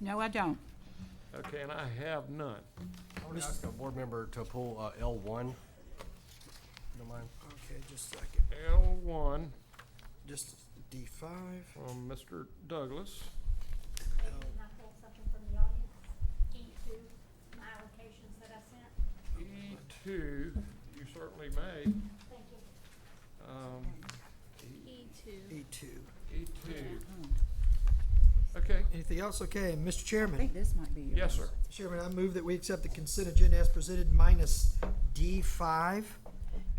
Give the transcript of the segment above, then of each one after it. No, I don't. Okay, and I have none. I would ask a board member to pull uh, L one. Don't mind. Okay, just a second. L one Just D five. from Mr. Douglas. Can I pull something from the audience? E two, my allocations that I sent, E two, you certainly may. thank you. Um, E two. E two. E two. Okay, Anything else? Okay, Mr. I Chairman. think this might be yours. yes, sir. Chairman, I move that we accept the consent agenda as presented minus D five,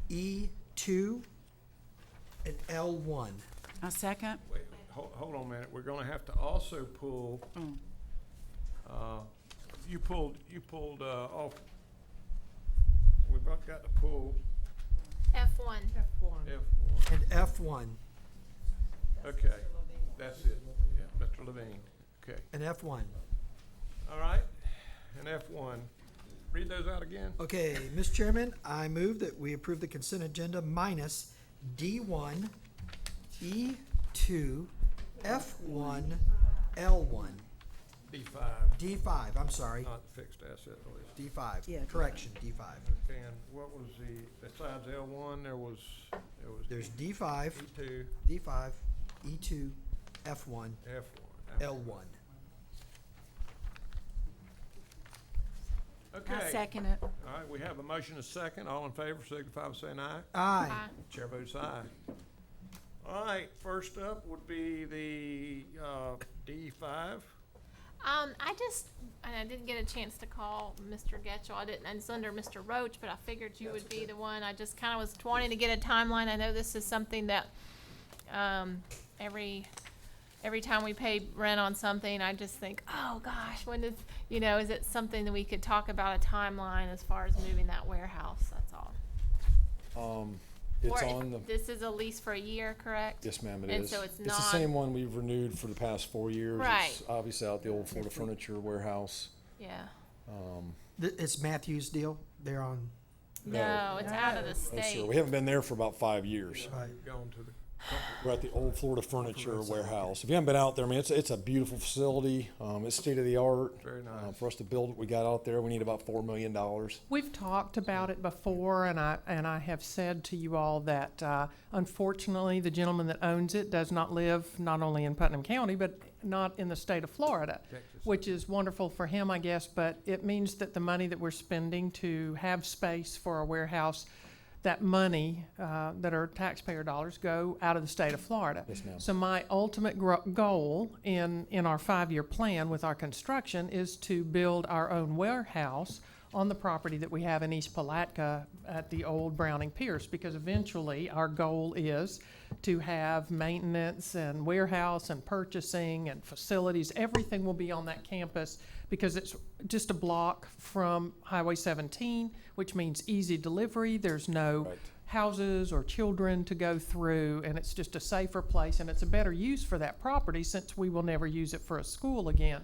E two, and L one. A second? Wait, hold, hold on a minute. We're gonna have to also pull, Mm. uh, you pulled, you pulled, uh, off. We've got got to pull F one. F one. F And F one. one, Okay, that's it. Yeah, Mr. Levine. Okay, and F one. all right. And F one. Read those out again. Okay, Mr. Chairman, I move that we approve the consent agenda minus D one, E two, F one, L one. D five, D five, I'm sorry, not the fixed asset release. Uh, D five, Yeah, D5. correction, D five. And what was the, besides L one, there was, there was. There's D five, E two, D five, E two, F one, F one. L one. I Okay, second it. all right, we have a motion, a second. All in favor, signify by saying aye. Uh, Aye. Chair votes aye. All right, first up would be the, uh, D five. Um, I just, and I didn't get a chance to call Mr. Getchell. I didn't, and it's under Mr. Roach, but I figured you would be the one. I just kinda was wanting to get a timeline. I know this is something that, um, every, every time we pay rent on something, I just think, oh gosh, when is, you know, is it something that we could talk about a timeline as far as moving that warehouse? That's all. Um, it's Or on the, This is a lease for a year, correct? yes ma'am, it and is. so it's the not- same one we've renewed for the past four years. Right. It's Obviously out the old Florida Furniture Warehouse. Yeah. Th- It's Matthew's deal, they're on, No, it's out of the No, sir, state. We haven't been there for about five years. right, Gone to the, We're at the old Florida Furniture Warehouse. If you haven't been out there, I mean, it's, it's a beautiful facility. Um, it's state of the art. Very nice. For us to build what we got out there, we need about four million dollars. We've talked about it before, and I, and I have said to you all that uh, unfortunately, the gentleman that owns it does not live not only in Putnam County, but not in the state of Florida, Texas. which is wonderful for him, I guess, but it means that the money that we're spending to have space for a warehouse, that money uh, that are taxpayer dollars go out of the state of Florida. Yes, ma'am. So my ultimate gro- goal in, in our five-year plan with our construction is to build our own warehouse on the property that we have in East Palatka at the old Browning Pierce, because eventually our goal is to have maintenance and warehouse and purchasing and facilities, everything will be on that campus because it's just a block from Highway seventeen, which means easy delivery, there's no Right. houses or children to go through, and it's just a safer place, and it's a better use for that property since we will never use it for a school again.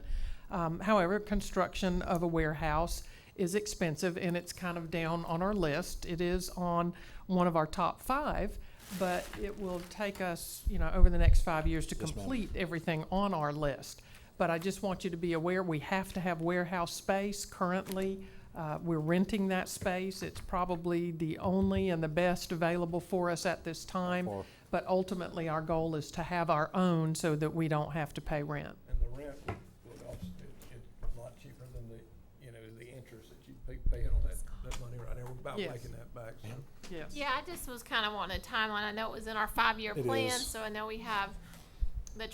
Um, however, construction of a warehouse is expensive, and it's kind of down on our list. It is on one of our top five, but it will take us, you know, over the next five years to Yes, ma'am. complete everything on our list. But I just want you to be aware, we have to have warehouse space currently. Uh, We're renting that space. It's probably the only and the best available for us at this time. Or- But ultimately, our goal is to have our own so that we don't have to pay rent. and the rent would, would also, it- it's a lot cheaper than the, you know, the interest that you pay, paying on that, that money right there. We're about Yes. making that back, so. Yes. Yeah, I just was kind of wanting a timeline. I know it was in our five-year It plan, is. so I know we have the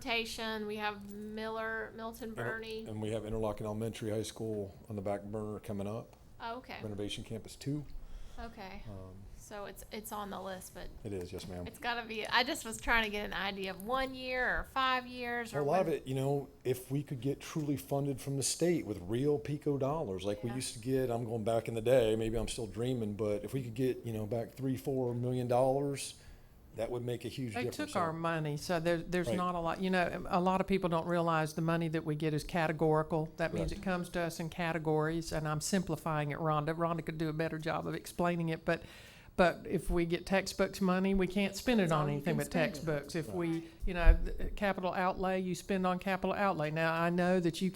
transportation, we have Miller, Milton Uh-huh. Bernie. And we have Interlochen Elementary High School on the back burner coming up, Oh, Okay, renovation campus two. okay. Um, So it's, it's on the list, but It is, yes ma'am. it's gotta be, I just was trying to get an idea of one year or five years or. A lot of when- it, you know, if we could get truly funded from the state with real pico dollars, like we Yeah. used to get, I'm going back in the day, maybe I'm still dreaming, but if we could get, you know, back three, four million dollars, that would make a huge They difference. took So our money, so there, there's Right. not a lot, you know, um, a lot of people don't realize the money that we get is categorical. That means it comes to us in categories, and I'm simplifying it, Rhonda. Rhonda could do a better job of explaining it, but, but if we get textbooks money, we can't spend it That's all on you anything can but spend it on. uh, textbooks. If we, you know, th- capital outlay, you spend on capital outlay. Now, I know that you